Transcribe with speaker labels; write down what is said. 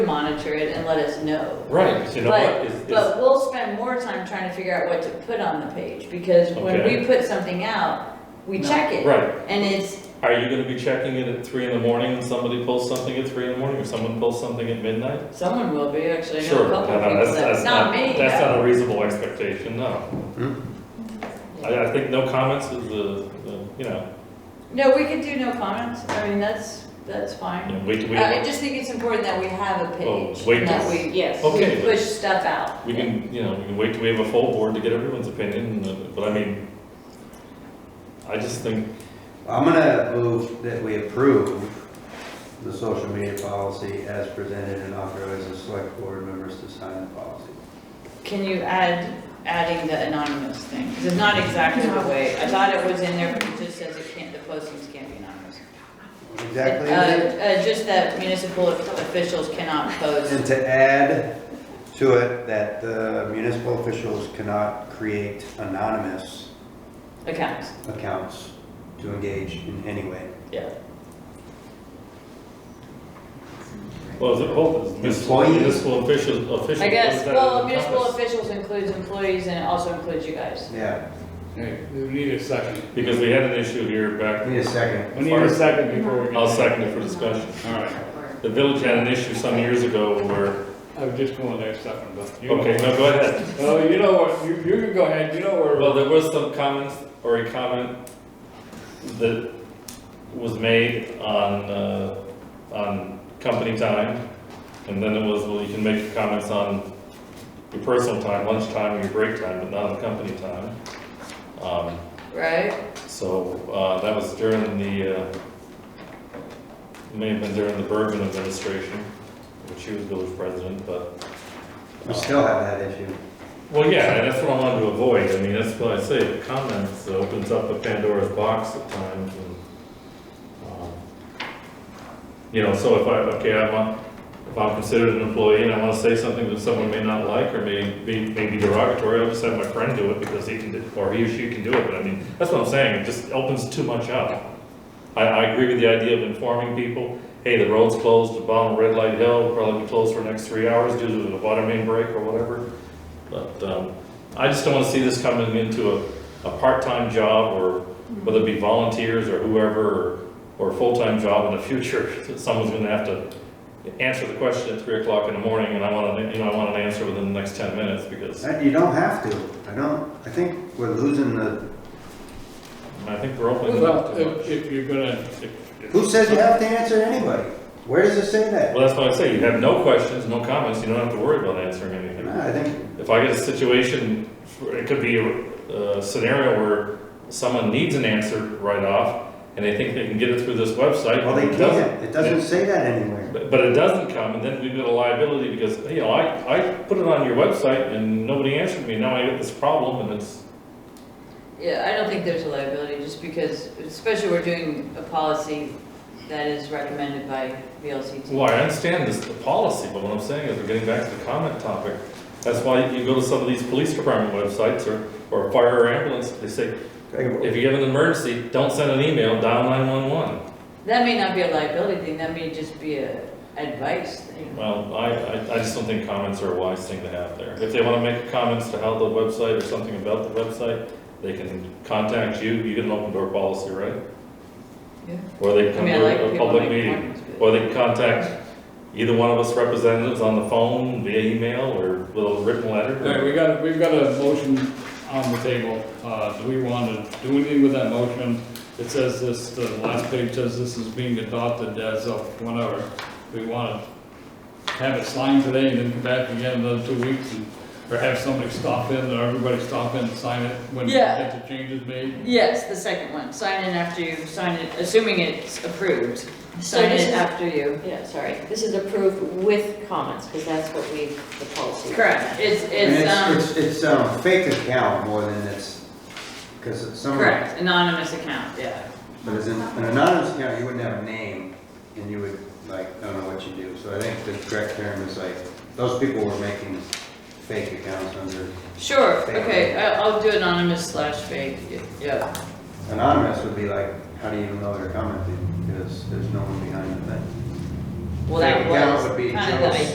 Speaker 1: monitor it and let us know.
Speaker 2: Right, you know what,
Speaker 1: But,
Speaker 2: is, is,
Speaker 1: but we'll spend more time trying to figure out what to put on the page, because when
Speaker 2: Okay.
Speaker 1: we put something out, we
Speaker 3: No.
Speaker 1: check it.
Speaker 2: right,
Speaker 1: And it's,
Speaker 2: are you gonna be checking it at three in the morning and somebody pulls something at three in the morning, or someone pulls something at midnight?
Speaker 1: someone will be, actually, I know
Speaker 2: Sure,
Speaker 1: a
Speaker 2: no,
Speaker 1: couple of
Speaker 2: no,
Speaker 1: people
Speaker 2: that's, that's
Speaker 1: that,
Speaker 2: not,
Speaker 1: not me.
Speaker 2: that's
Speaker 1: but-
Speaker 2: not a reasonable expectation, no. I, I think no comments is the, the, you know,
Speaker 1: No, we could do no comments, I mean, that's, that's fine. Uh,
Speaker 2: we, we,
Speaker 1: I I just think it's important that we have a
Speaker 2: Well,
Speaker 1: page,
Speaker 2: wait
Speaker 1: and that
Speaker 2: till-
Speaker 1: we,
Speaker 3: Yes.
Speaker 2: Okay,
Speaker 1: we
Speaker 2: but-
Speaker 1: push stuff out.
Speaker 2: we can, you know, we can wait till we have a full board to get everyone's opinion, uh, but I mean, I just think,
Speaker 4: I'm gonna move that we approve the social media policy as presented and authorize the select board members to sign the policy.
Speaker 1: Can you add, adding the anonymous thing? 'Cause it's not exactly the way, I thought it was in there, but it just says it can't, the postings can't be anonymous.
Speaker 4: Exactly,
Speaker 1: Uh,
Speaker 4: and
Speaker 1: uh, just that municipal officials cannot post,
Speaker 4: to add to it that the municipal officials cannot create anonymous
Speaker 1: accounts,
Speaker 4: accounts to engage in any way.
Speaker 1: yeah.
Speaker 2: well, is it, hold, is municipal,
Speaker 4: Employees.
Speaker 2: municipal official, official.
Speaker 1: I guess,
Speaker 2: is that
Speaker 1: well,
Speaker 2: encompass?
Speaker 1: municipal officials includes employees and it also includes you guys.
Speaker 4: Yeah,
Speaker 5: Hey, we need a second.
Speaker 2: Because we had an issue here back,
Speaker 4: we need a second.
Speaker 5: We need a second before we can.
Speaker 2: I'll second it for discussion.
Speaker 5: All right,
Speaker 2: The village had an issue some years ago where,
Speaker 5: I was just going there second, but. you-
Speaker 2: okay, no, go ahead.
Speaker 5: Oh, you know what, you, you can go ahead, you know where.
Speaker 2: Well, there was some comments, or a comment that was made on, uh, on company time. And then it was, well, you can make comments on your personal time, lunchtime, or your break time, but not on company time. Um,
Speaker 1: Right?
Speaker 2: So, uh, that was during the, uh, it may have been during the Bergman administration, when she was village president, but.
Speaker 4: We still have that issue.
Speaker 2: Well, yeah, and that's what I wanted to avoid, I mean, that's what I say, comments opens up a Pandora's box at times and, um, you know, so if I, okay, I'm, a- if I'm considered an employee and I wanna say something that someone may not like or may be, may be derogatory, I'll just have my friend do it because he can, do- or he or she can do it, but I mean, that's what I'm saying, it just opens too much up. I, I agree with the idea of informing people, hey, the road's closed, the bottom of Red Light Hill, probably be closed for the next three hours due to the water main break or whatever. But um, I just don't want to see this coming into a, a part-time job or whether it be volunteers or whoever or, or a full-time job in the future. that Someone's going to have to answer the question at three o'clock in the morning and I want to, you know, I want an answer within the next ten minutes because
Speaker 4: Uh, You don't have to, I don't, I think we're losing the,
Speaker 2: I think we're opening it up
Speaker 5: Well,
Speaker 2: too much.
Speaker 5: if, if you're gonna. if- if-
Speaker 4: who says you have to answer anybody? Where does it say that?
Speaker 2: Well, that's why I say, you have no questions, no comments, you don't have to worry about answering anything.
Speaker 4: No, I think
Speaker 2: If I get a situation, it could be a a scenario where someone needs an answer right off, and they think they can get it through this website.
Speaker 4: Well, they
Speaker 2: it doesn't.
Speaker 4: can't, it doesn't say that anywhere.
Speaker 2: But but it doesn't come, and then we've got a liability because, you know, I, I put it on your website and nobody answered me, now I got this problem, and it's,
Speaker 1: Yeah, I don't think there's a liability, just because, especially we're doing a policy that is recommended by VLCT.
Speaker 2: well, I understand this, the policy, but what I'm saying is, we're getting back to the comment topic. That's why you go to some of these police department websites or, or fire or ambulance, they say, if you have an emergency, don't send an email, dial nine-one-one.
Speaker 1: That may not be a liability thing, that may just be a advice thing.
Speaker 2: Well, I, I, I just don't think comments are a wise thing to have there. If they wanna make comments to how the website or something about the website, they can contact you, you get an open door policy, right?
Speaker 1: Yeah.
Speaker 2: Or they
Speaker 1: I
Speaker 2: come
Speaker 1: mean, I like
Speaker 2: to a
Speaker 1: people
Speaker 2: public
Speaker 1: make
Speaker 2: meeting,
Speaker 1: appointments, but-
Speaker 2: or they can contact either one of us representatives on the phone, via email, or with a written
Speaker 5: All right,
Speaker 2: letter.
Speaker 5: we got, we've got a motion on the table, uh, do we want to do anything with that motion? It says this, the last page says this is being adopted as of whenever, we want to have it signed today and then come back again in another two weeks and, or have somebody stop in, or everybody stop in and sign it when we
Speaker 1: Yeah.
Speaker 5: get the changes made.
Speaker 1: Yes, the second one, sign in after you, sign it, assuming it's approved,
Speaker 6: So
Speaker 1: sign
Speaker 6: this
Speaker 1: it
Speaker 6: is-
Speaker 1: after you.
Speaker 6: Yeah, sorry, this is approved with comments, because that's what we, the policy.
Speaker 1: Correct, it's,
Speaker 4: And
Speaker 1: it's, um,
Speaker 4: It's, it's um, fake account more than it's, because some, but
Speaker 1: correct, anonymous account, yeah.
Speaker 4: as an an anonymous account, you wouldn't have a name, and you would, like, don't know what you do. So I think the correct term is like, those people were making fake accounts under,
Speaker 1: Sure,
Speaker 4: Fake.
Speaker 1: okay, I- I'll do anonymous slash fake, yeah.
Speaker 4: anonymous would be like, how do you even know they're commenting? Because there's no one behind the thing.
Speaker 1: Well, that
Speaker 4: Fake account
Speaker 1: was
Speaker 4: would be
Speaker 1: kind of the
Speaker 4: Joe's-